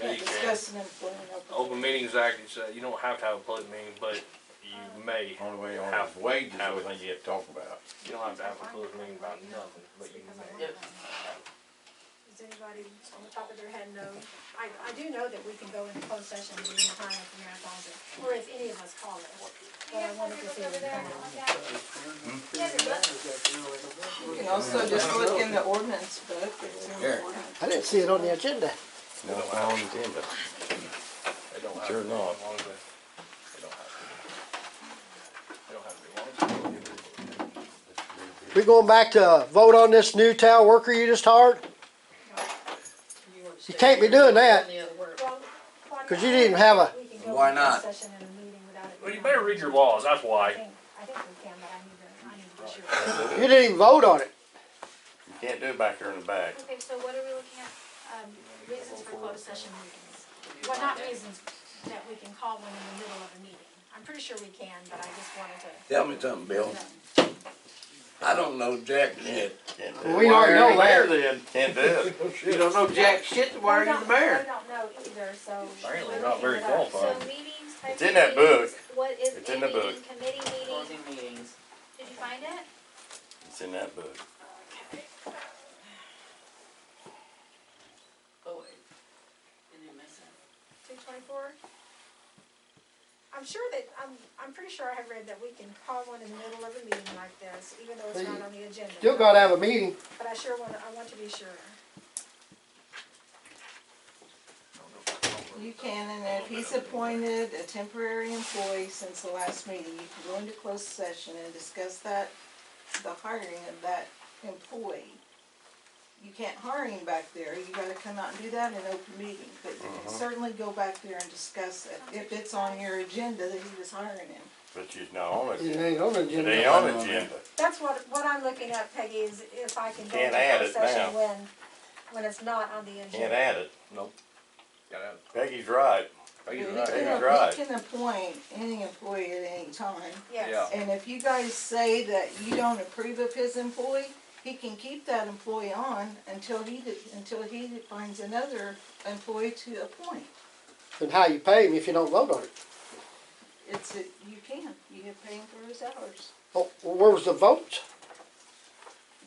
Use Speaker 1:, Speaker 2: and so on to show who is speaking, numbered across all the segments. Speaker 1: Yes.
Speaker 2: Open Meetings Act, it's, uh, you don't have to have a public meeting, but you may.
Speaker 3: Only way on
Speaker 2: How-
Speaker 3: his wages,
Speaker 2: how
Speaker 3: I
Speaker 2: is
Speaker 3: think you have to talk about.
Speaker 2: You don't have to have a public meeting about nothing, but you may.
Speaker 4: Yep.
Speaker 1: Does anybody on the top of their head know, I, I do know that we can go into closed session at any time if the mayor calls it, or if any of us call it. But I wanted to see if we can.
Speaker 5: You can also just look in the ordinance book, it's in
Speaker 3: Here.
Speaker 5: the ordinance.
Speaker 6: I didn't see it on the agenda.
Speaker 3: No, it's not on the agenda.
Speaker 2: It don't have to
Speaker 3: Sure
Speaker 2: be
Speaker 3: not.
Speaker 2: as long as they- It don't have to be. It don't have to be long.
Speaker 6: We going back to vote on this new town worker you just hired? You can't be doing that,
Speaker 1: Well, why
Speaker 6: cause
Speaker 1: not?
Speaker 6: you didn't have a,
Speaker 1: We can go
Speaker 7: Why
Speaker 1: into closed
Speaker 7: not?
Speaker 1: Session in a meeting without it.
Speaker 2: Well, you
Speaker 1: being
Speaker 2: better
Speaker 1: on.
Speaker 2: read your laws, that's
Speaker 1: I
Speaker 2: why.
Speaker 1: think, I think we can, but I need to, I need to be sure.
Speaker 6: you didn't even vote on it.
Speaker 3: You can't do it back there in the back.
Speaker 8: Okay, so what are we looking at, um, reasons for closed session meetings?
Speaker 1: Well, not reasons that we can call one in the middle of a meeting. I'm pretty sure we can, but I just wanted to.
Speaker 7: Tell me something, Bill. I don't know jack shit.
Speaker 3: Can't do it.
Speaker 6: We already know that.
Speaker 3: then. Can't do it.
Speaker 4: You don't know jack shit, why are
Speaker 1: We
Speaker 4: you the
Speaker 1: don't-
Speaker 4: mayor?
Speaker 1: We don't know either, so.
Speaker 2: Apparently
Speaker 1: we're
Speaker 2: not very
Speaker 1: looking it up.
Speaker 2: qualified.
Speaker 8: So
Speaker 2: Fine.
Speaker 8: meetings, type of meetings?
Speaker 3: It's in that book.
Speaker 8: What is
Speaker 3: It's
Speaker 8: a
Speaker 3: in the
Speaker 8: meeting,
Speaker 3: book.
Speaker 8: committee meeting?
Speaker 4: Closing meetings.
Speaker 8: Did you find it?
Speaker 3: It's in that book.
Speaker 4: Oh, wait. Did you miss it?
Speaker 1: Two twenty-four? I'm sure that, I'm, I'm pretty sure I have read that we can call one in the middle of a meeting like this, even though it's not on the agenda.
Speaker 6: Still gotta have a meeting.
Speaker 1: But I sure want, I want to be sure.
Speaker 5: You can, and if he's appointed a temporary employee since the last meeting, you can go into closed session and discuss that, the hiring of that employee. You can't hire him back there, you gotta come out and do that in open meeting, but you
Speaker 4: Uh-huh.
Speaker 5: can certainly go back there and discuss it, if it's on your agenda that he was hiring him.
Speaker 3: But she's not on it.
Speaker 6: It
Speaker 3: yet.
Speaker 6: ain't on the
Speaker 3: It
Speaker 6: agenda.
Speaker 3: ain't on the agenda.
Speaker 1: That's what, what I'm looking at, Peggy, is if I can go
Speaker 3: Can't
Speaker 1: into
Speaker 3: add
Speaker 1: closed
Speaker 3: it now.
Speaker 1: session when, when it's not on the
Speaker 3: Can't
Speaker 1: agenda.
Speaker 3: add it.
Speaker 2: Gotta have-
Speaker 3: Peggy's right.
Speaker 5: You
Speaker 2: Peggy's right.
Speaker 3: Peggy's
Speaker 5: can,
Speaker 3: right.
Speaker 5: you can appoint any employee at any time.
Speaker 1: Yes,
Speaker 2: Yeah.
Speaker 5: And if you guys say that you don't approve of his employee, he can keep that employee on until he, de- until he finds another employee to appoint.
Speaker 6: And how you pay him if you don't vote on it.
Speaker 5: It's, a- you can, you can pay him for his hours.
Speaker 6: Oh, where was the vote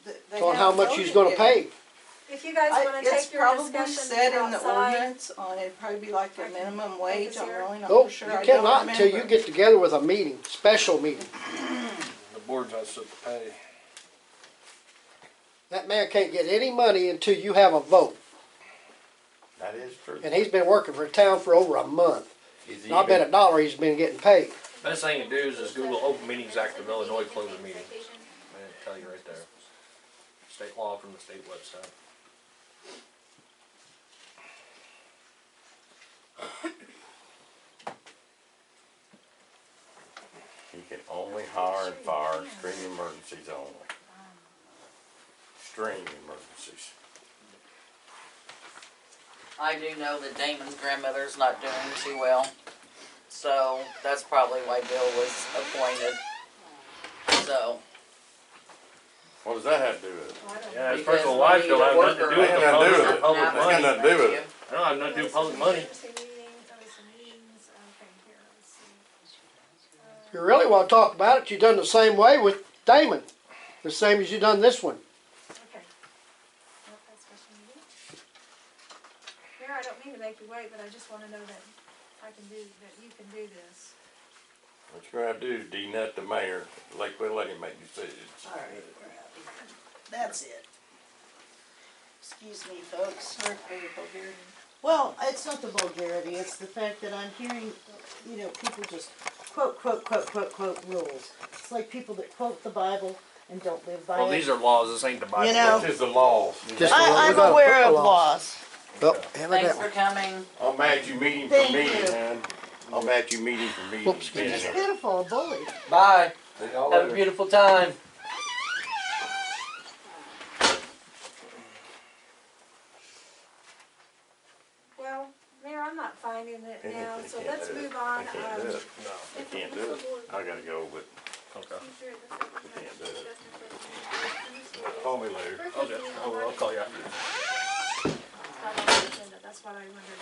Speaker 5: Th- they
Speaker 6: on how
Speaker 5: haven't
Speaker 6: much he's
Speaker 5: voted
Speaker 6: gonna
Speaker 5: yet.
Speaker 6: pay?
Speaker 1: if you guys
Speaker 5: I-
Speaker 1: wanna
Speaker 5: It's
Speaker 1: take your
Speaker 5: probably
Speaker 1: discussion
Speaker 5: said in the
Speaker 1: outside,
Speaker 5: ordinance on, it'd probably be like the minimum wage, I'm really not
Speaker 6: Nope,
Speaker 5: sure.
Speaker 6: you
Speaker 5: I don't
Speaker 6: cannot until you
Speaker 5: remember.
Speaker 6: get together with a meeting, special meeting.
Speaker 2: The board's not supposed to pay.
Speaker 6: That man can't get any money until you have a vote.
Speaker 3: That is true.
Speaker 6: And he's been working for town for over a month.
Speaker 3: Is he
Speaker 6: Not been a
Speaker 3: even-
Speaker 6: dollar he's been getting paid.
Speaker 2: Best thing to do is just Google Open Meetings Act of Illinois closing meetings. Man, it'll tell you right there. State law from the state website.
Speaker 3: You can only hire and fire extreme emergencies only. Extreme emergencies.
Speaker 4: I do know that Damon's grandmother's not doing too well, so that's probably why Bill was appointed. So,
Speaker 3: What does that have to do with it?
Speaker 1: Well, I don't know.
Speaker 2: Yeah, his
Speaker 4: Because
Speaker 2: personal
Speaker 4: we
Speaker 2: life don't have nothing to
Speaker 4: need a
Speaker 2: do
Speaker 4: worker.
Speaker 2: with the
Speaker 3: Nothing to do with
Speaker 2: public,
Speaker 3: it.
Speaker 2: public money.
Speaker 4: now-
Speaker 3: Nothing to do with it.
Speaker 2: I don't have nothing to do with public money.
Speaker 1: Emergency meetings, emergency meetings, okay, here, let's see.
Speaker 6: If you really wanna talk about it, you done the same way with Damon. The same as you done this one.
Speaker 1: Okay. Nope, that's special meeting. Mayor, I don't mean to make you wait, but I just wanna know that I can do, that you can do this.
Speaker 3: What you're gonna have to do is denut the mayor, like, we'll let him make decisions.
Speaker 9: All right, we're out of here. That's it. Excuse me, folks.
Speaker 5: Sorry for your vulgarity.
Speaker 9: Well, it's not the vulgarity, it's the fact that I'm hearing, you know, people just quote, quote, quote, quote, quote rules. It's like people that quote the Bible and don't live by
Speaker 2: Well,
Speaker 9: it.
Speaker 2: these are laws, this ain't the Bible.
Speaker 9: You know.
Speaker 3: This is the laws.
Speaker 6: Just the one
Speaker 9: I,
Speaker 6: we
Speaker 9: I'm
Speaker 6: got,
Speaker 9: aware of
Speaker 6: football Oh, laws.
Speaker 9: laws.
Speaker 6: Well,
Speaker 4: thanks
Speaker 6: evidently.
Speaker 4: for coming.
Speaker 3: I'm mad you meet him
Speaker 9: Thank
Speaker 3: for meeting,
Speaker 9: you.
Speaker 3: man. I'm mad you meet him for meeting.
Speaker 6: Whoops, excuse
Speaker 9: It's
Speaker 3: Being
Speaker 9: pitiful, a bully.
Speaker 7: Bye.
Speaker 3: there.
Speaker 7: Have a beautiful time.
Speaker 1: Well, Mayor, I'm not finding it
Speaker 3: Yeah,
Speaker 1: now,
Speaker 3: they
Speaker 1: so
Speaker 3: can't
Speaker 1: let's
Speaker 3: do it.
Speaker 1: move
Speaker 3: I
Speaker 1: on.
Speaker 3: can't do
Speaker 1: Um,
Speaker 3: it. I can't do it. I gotta go, but
Speaker 2: Okay.
Speaker 3: I can't do it. Call me later.
Speaker 2: Okay, I'll I'll call you after.
Speaker 1: not on the agenda, That's what I wondered.